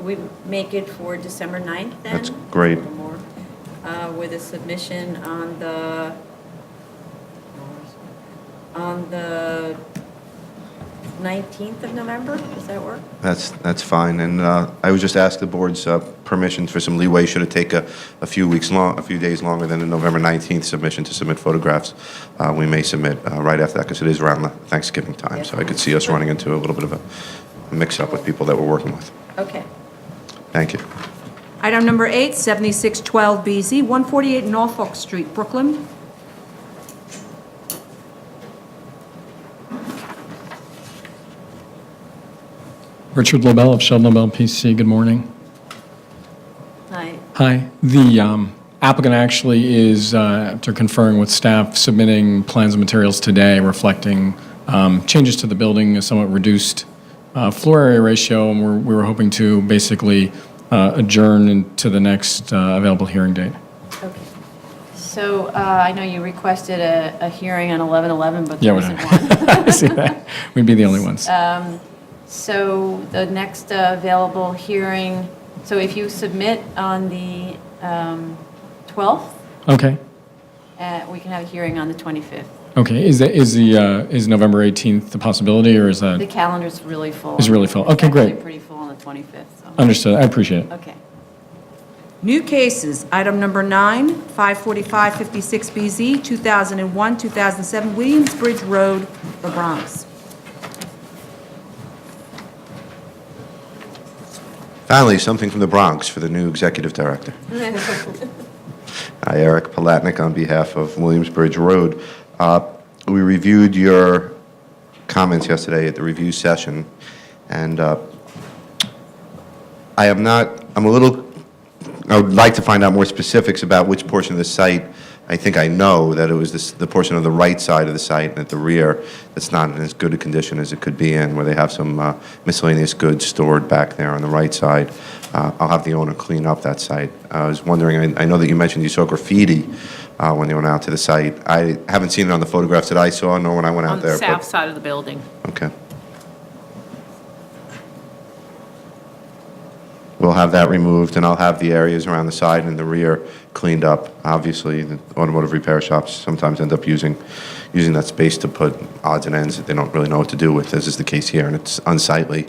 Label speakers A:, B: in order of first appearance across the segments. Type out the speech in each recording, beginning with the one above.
A: we make it for December 9th then?
B: That's great.
A: A little more, uh, With a submission on the, on the 19th of November, does that work?
B: That's, that's fine, and uh, I would just ask the board's uh, permission for some leeway, should it take a, a few weeks long, a few days longer than the November 19th submission to submit photographs, uh, we may submit uh, right after that, because it is around the Thanksgiving time, so I could see us running into a little bit of a mix-up with people that we're working with.
A: Okay.
B: Thank you.
C: Item number eight, 7612BZ, 148 Norfolk Street, Brooklyn.
D: Richard Lobel of Sheldon Lobel PC, good morning.
A: Hi,
D: Hi. The um, applicant actually is, uh, after conferring with staff, submitting plans and materials today reflecting um, changes to the building, a somewhat reduced uh, floor area ratio, and we're- we were hoping to basically uh, adjourn to the next uh, available hearing date.
A: okay.
E: So uh, I know you requested a, a hearing on 11/11, but
D: Yeah,
E: there
D: we
E: isn't one.
D: I see that. We'd be the only ones.
E: So the next uh, available hearing, so if you submit on the um, 12th,
D: Okay,
E: uh, we can have a hearing on the 25th.
D: okay. Is that, is the, uh, is November 18th the possibility, or is
E: The
D: that?
E: calendar's really full.
D: It's really full. Okay,
E: It's actually
D: great.
E: pretty full on the 25th, so,
D: Understood, I appreciate it.
E: okay.
C: New cases, item number nine, 54556BZ, 2001, 2007, Williamsbridge Road, The Bronx.
B: Finally, something from the Bronx for the new executive director. Hi, Eric Palatnik on behalf of Williamsbridge Road. Uh, We reviewed your comments yesterday at the review session, and uh, I am not, I'm a little, I would like to find out more specifics about which portion of the site. I think I know that it was this- the portion of the right side of the site and at the rear that's not in as good a condition as it could be in, where they have some uh, miscellaneous goods stored back there on the right side. Uh, I'll have the owner clean up that site. Uh, I was wondering, I I know that you mentioned you saw graffiti uh, when you went out to the site. I haven't seen it on the photographs that I saw, nor when I went out
F: On the
B: there. but-
F: south side of the building.
B: Okay. We'll have that removed, and I'll have the areas around the side and the rear cleaned up. Obviously, the automotive repair shops sometimes end up using, using that space to put odds and ends that they don't really know what to do with, as is the case here, and it's unsightly.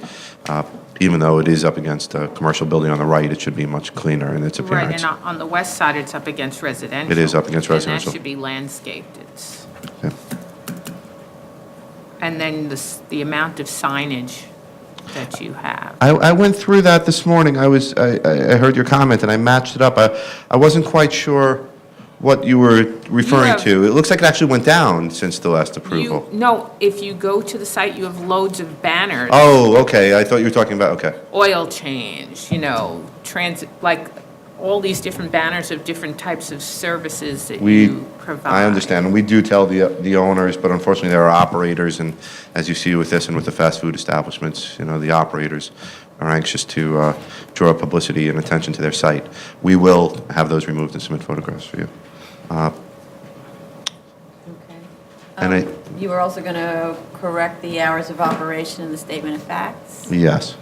B: Uh, Even though it is up against a commercial building on the right, it should be much cleaner in its
F: Right,
B: appearance.
F: and on on the west side, it's up against residential.
B: It is up against
F: And
B: residential.
F: that should be landscaped. It's,
B: Yeah.
F: and then the, s- the amount of signage that you have.
B: I, I went through that this morning. I was, I, I I heard your comment and I matched it up. I, I wasn't quite sure what you were referring
F: have-
B: to. It looks like it actually went down since the last
F: You,
B: approval.
F: no, if you go to the site, you have loads of banners.
B: Oh, okay, I thought you were talking about, okay.
F: Oil change, you know, transit, like, all these different banners of different types of services that
B: We,
F: you provide.
B: I understand, and we do tell the, the owners, but unfortunately, there are operators, and as you see with this and with the fast food establishments, you know, the operators are anxious to uh, draw publicity and attention to their site. We will have those removed and submit photographs for you.
A: Okay.
B: And I,
A: Um, You were also going to correct the hours of operation in the statement of facts?
B: yes.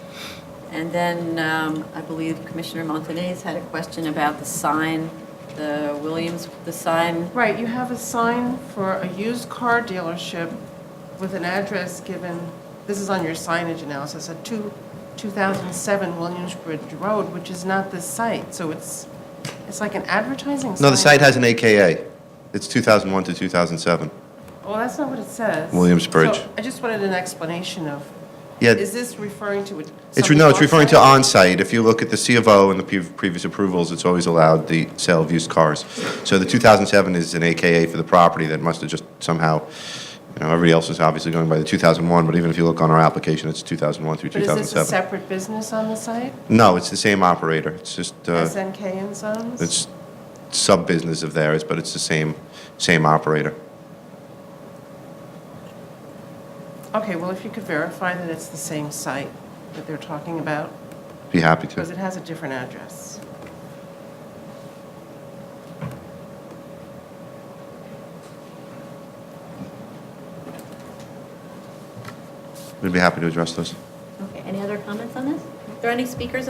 A: And then um, I believe Commissioner Montanez had a question about the sign, the Williams, the sign.
G: Right, you have a sign for a used car dealership with an address given, this is on your signage analysis, at two- 2007 Williamsbridge Road, which is not this site, so it's, it's like an advertising sign.
B: No, the site has an AKA. It's 2001 to 2007.
G: Well, that's not what it says.
B: Williamsbridge.
G: So I just wanted an explanation of,
B: Yeah,
G: is this referring to it?
B: it's, no, it's referring to on-site. If you look at the C of O and the pre- previous approvals, it's always allowed the sale of used cars. So the 2007 is an AKA for the property that must have just somehow, you know, everybody else is obviously going by the 2001, but even if you look on our application, it's 2001 through
G: But is this a
B: 2007.
G: separate business on the site?
B: No, it's the same operator. It's just, uh,
G: SNK and Sons?
B: it's sub-business of theirs, but it's the same, same operator.
G: Okay, well, if you could verify that it's the same site that they're talking about,
B: Be happy to.
G: because it has a different address.
B: We'd be happy to address those.
A: Okay, any other comments on this? Are there any speakers